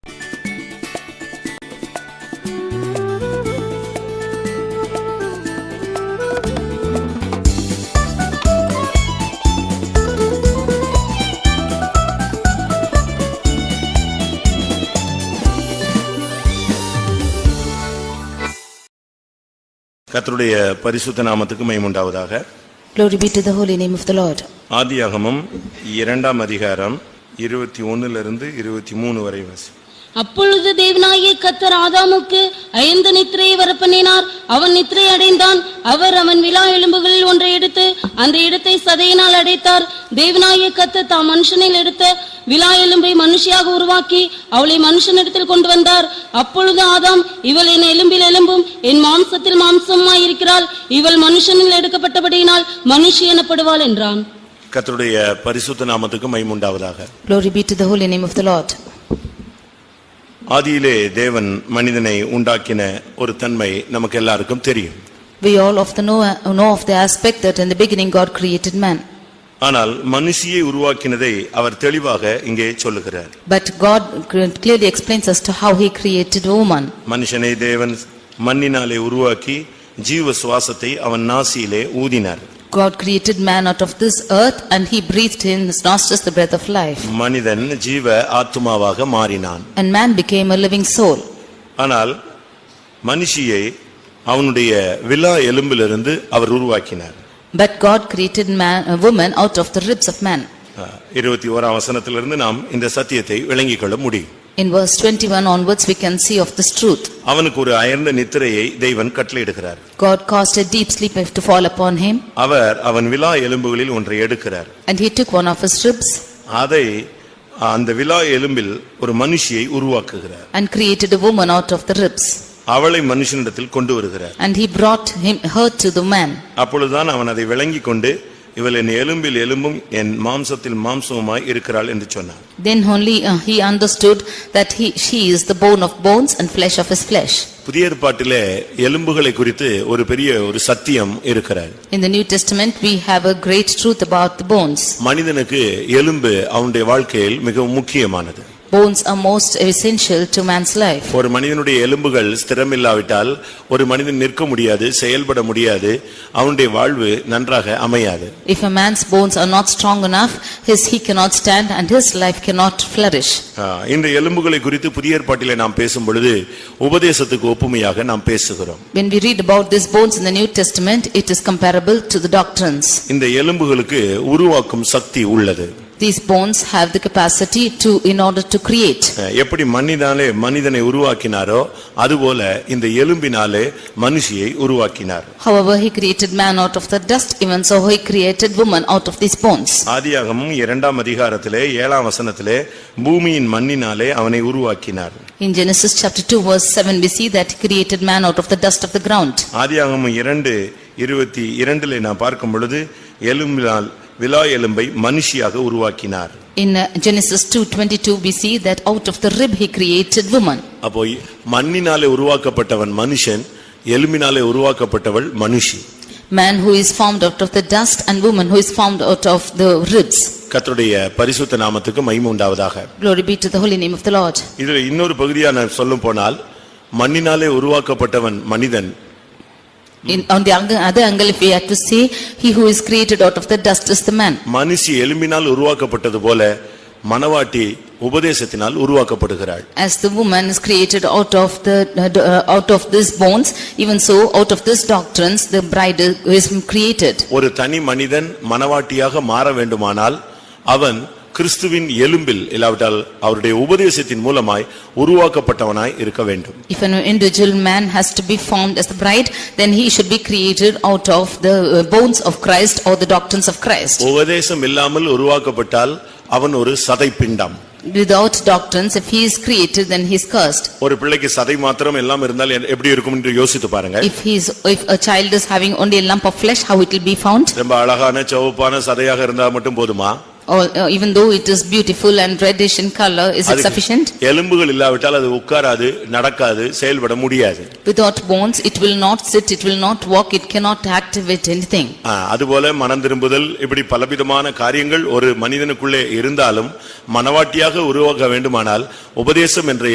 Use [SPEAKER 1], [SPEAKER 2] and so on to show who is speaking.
[SPEAKER 1] கர்த்தருடைய பரிசுத்த நாமத்துக்கு மைமுண்டாவதாக
[SPEAKER 2] Glory be to the holy name of the Lord.
[SPEAKER 1] ஆதியாகமம் இரண்டாம் அதிகாரம் இருபத்தி ஒன்னிலிருந்து இருபத்தி மூணு வரை வசி
[SPEAKER 3] அப்பொழுது தேவனாகிய கத்தர் ஆதாமுக்கு ஐந்து நித்திரையை வரப்பண்ணினார் அவன் நித்திரை அடைந்தான் அவர் அவன் விழா எலும்புகளில் ஒன்றை எடுத்து அந்த இடத்தை சதையினால் அடைத்தார் தேவனாகிய கத்தர் தாம் மனுஷனில் எடுத்த விழா எலும்பை மனுஷியாக உருவாக்கி அவளை மனுஷனிடத்தில் கொண்டு வந்தார் அப்பொழுது ஆதாம் இவள் என் எலும்பில் எலும்பும் என் மாம்சத்தில் மாம்சமாய் இருக்கிறாள் இவள் மனுஷனில் எடுக்கப்பட்டபடியினால் மனுஷி எனப்படுவாள் என்றான்
[SPEAKER 1] கர்த்தருடைய பரிசுத்த நாமத்துக்கு மைமுண்டாவதாக
[SPEAKER 2] Glory be to the holy name of the Lord.
[SPEAKER 1] ஆதியிலே தேவன் மனிதனை உண்டாக்கின ஒரு தன்மை நமக்கு எல்லாருக்கும் தெரியும்
[SPEAKER 2] We all of the know, know of the aspect that in the beginning God created man.
[SPEAKER 1] ஆனால் மனுஷியை உருவாக்கினதை அவர் தெளிவாக இங்கே சொல்லுகிறார்
[SPEAKER 2] But God clearly explains us to how he created woman.
[SPEAKER 1] மனுஷனை தேவன் மண்ணினாலே உருவாக்கி ஜீவ சுவாசத்தை அவன் நாசியிலே ஊதினார்
[SPEAKER 2] God created man out of this earth and he breathed in his nostrils the breath of life.
[SPEAKER 1] மனிதன் ஜீவ ஆத்துமாவாக மாறினான்
[SPEAKER 2] And man became a living soul.
[SPEAKER 1] ஆனால் மனுஷியை அவனுடைய விலா எலும்பிலிருந்து அவர் உருவாக்கினார்
[SPEAKER 2] But God created man, a woman out of the ribs of man.
[SPEAKER 1] அஹ், இருபத்தி ஓராம் வசனத்திலிருந்து நாம் இந்த சத்தியத்தை விளங்கிக் கொள்ள முடியும்
[SPEAKER 2] In verse 21 onwards we can see of this truth.
[SPEAKER 1] அவனுக்கு ஒரு அயர்ந்த நித்திரையை தெய்வன் கட்டளையிடுகிறார்
[SPEAKER 2] God caused a deep sleep to fall upon him
[SPEAKER 1] அவர் அவன் விலா எலும்புகளில் ஒன்றை எடுக்கிறார்
[SPEAKER 2] and he took one of his ribs
[SPEAKER 1] அதை அந்த விலா எலும்பில் ஒரு மனுஷியை உருவாக்குகிறார்
[SPEAKER 2] and created a woman out of the ribs.
[SPEAKER 1] அவளை மனுஷனிடத்தில் கொண்டு வருகிறார்
[SPEAKER 2] And he brought him, her to the man.
[SPEAKER 1] அப்பொழுதுதான் அவன் அதை விளங்கிக் கொண்டு இவள் என் எலும்பில் எலும்பும் என் மாம்சத்தில் மாம்சமுமாய் இருக்கிறாள் என்று சொன்னான்
[SPEAKER 2] Then only uh, he understood that he, she is the bone of bones and flesh of his flesh.
[SPEAKER 1] புதிய ஏற்பாட்டிலே எலும்புகளை குறித்து ஒரு பெரிய ஒரு சத்தியம் இருக்கிறார்
[SPEAKER 2] In the New Testament, we have a great truth about the bones.
[SPEAKER 1] மனிதனுக்கு எலும்பு அவனுடைய வாழ்க்கையில் மிகவும் முக்கியமானது
[SPEAKER 2] Bones are most essential to man's life.
[SPEAKER 1] ஒரு மனிதனுடைய எலும்புகள் ஸ்திரமில்லாவிட்டால் ஒரு மனிதன் நிற்க முடியாது செயல்பட முடியாது அவனுடைய வாழ்வு நன்றாக அமையாது
[SPEAKER 2] If a man's bones are not strong enough, his, he cannot stand and his life cannot flourish.
[SPEAKER 1] ஆ, இந்த எலும்புகளை குறித்து புதிய ஏற்பாட்டிலே நாம் பேசும் பொழுது உபதேசத்துக்கு ஒப்புமையாக நாம் பேசுகிறோம்
[SPEAKER 2] When we read about these bones in the New Testament, it is comparable to the doctrines.
[SPEAKER 1] இந்த எலும்புகளுக்கு உருவாக்கும் சக்தி உள்ளது
[SPEAKER 2] These bones have the capacity to, in order to create.
[SPEAKER 1] ஆ, எப்படி மண்ணினாலே மனிதனை உருவாக்கினாரோ அதுபோல இந்த எலும்பினாலே மனுஷியை உருவாக்கினார்
[SPEAKER 2] However, he created man out of the dust, even so he created woman out of these bones.
[SPEAKER 1] ஆதியாகமும் இரண்டாம் அதிகாரத்திலே ஏழாம் வசனத்திலே பூமியின் மண்ணினாலே அவனை உருவாக்கினார்
[SPEAKER 2] In Genesis chapter 2 verse 7 we see that he created man out of the dust of the ground.
[SPEAKER 1] ஆதியாகமும் இரண்டு இருபத்தி இரண்டிலே நாம் பார்க்கும் பொழுது எலும்பினால் விலா எலும்பை மனுஷியாக உருவாக்கினார்
[SPEAKER 2] In uh, Genesis 2:22 we see that out of the rib he created woman.
[SPEAKER 1] அப்போ மண்ணினாலே உருவாக்கப்பட்டவன் மனுஷன் எலும்பினாலே உருவாக்கப்பட்டவள் மனுஷி
[SPEAKER 2] Man who is formed out of the dust and woman who is formed out of the ribs.
[SPEAKER 1] கர்த்தருடைய பரிசுத்த நாமத்துக்கு மகிமை உண்டாவதாக
[SPEAKER 2] Glory be to the holy name of the Lord.
[SPEAKER 1] இதில் இன்னொரு பகுதியா நான் சொல்லும் போனால் மண்ணினாலே உருவாக்கப்பட்டவன் மனிதன்
[SPEAKER 2] In, on the ang- other angle if we had to say he who is created out of the dust is the man.
[SPEAKER 1] மனுஷி எலும்பினால் உருவாக்கப்பட்டது போல மனவாட்டி உபதேசத்தினால் உருவாக்கப்படுகிறாள்
[SPEAKER 2] As the woman is created out of the, uh, out of these bones, even so out of these doctrines, the bride is created.
[SPEAKER 1] ஒரு தனி மனிதன் மனவாட்டியாக மாற வேண்டுமானால் அவன் கிறிஸ்துவின் எலும்பில் இல்லாவிட்டால் அவருடைய உபதேசத்தின் மூலமாய் உருவாக்கப்பட்டவனாய் இருக்க வேண்டும்
[SPEAKER 2] If an individual man has to be formed as the bride, then he should be created out of the uh, bones of Christ or the doctrines of Christ.
[SPEAKER 1] உபதேசம் இல்லாமல் உருவாக்கப்பட்டால் அவன் ஒரு சதை பிண்டம்
[SPEAKER 2] Without doctrines, if he is created, then he is cursed.
[SPEAKER 1] ஒரு பிள்ளைக்கு சதை மாத்திரம் எல்லாம் இருந்தால் எ- எப்படி இருக்கும் என்று யோசித்து பாருங்க
[SPEAKER 2] If he is, if a child is having only a lump of flesh, how it will be found?
[SPEAKER 1] ரொம்ப அழகான சிவப்பான சதையாக இருந்தால் மட்டும் போதுமா
[SPEAKER 2] Or uh, even though it is beautiful and reddish in color, is it
[SPEAKER 1] அதுக்கு
[SPEAKER 2] sufficient?
[SPEAKER 1] எலும்புகள் இல்லாவிட்டால் அது உட்காராது நடக்காது செயல்பட முடியாது
[SPEAKER 2] Without bones, it will not sit, it will not walk, it cannot activate anything.
[SPEAKER 1] ஆ, அதுபோல மனம் திரும்புதல் இப்படி பலவிதமான காரியங்கள் ஒரு மனிதனுக்குள்ளே இருந்தாலும் மனவாட்டியாக உருவாக்க வேண்டுமானால் உபதேசம் என்ற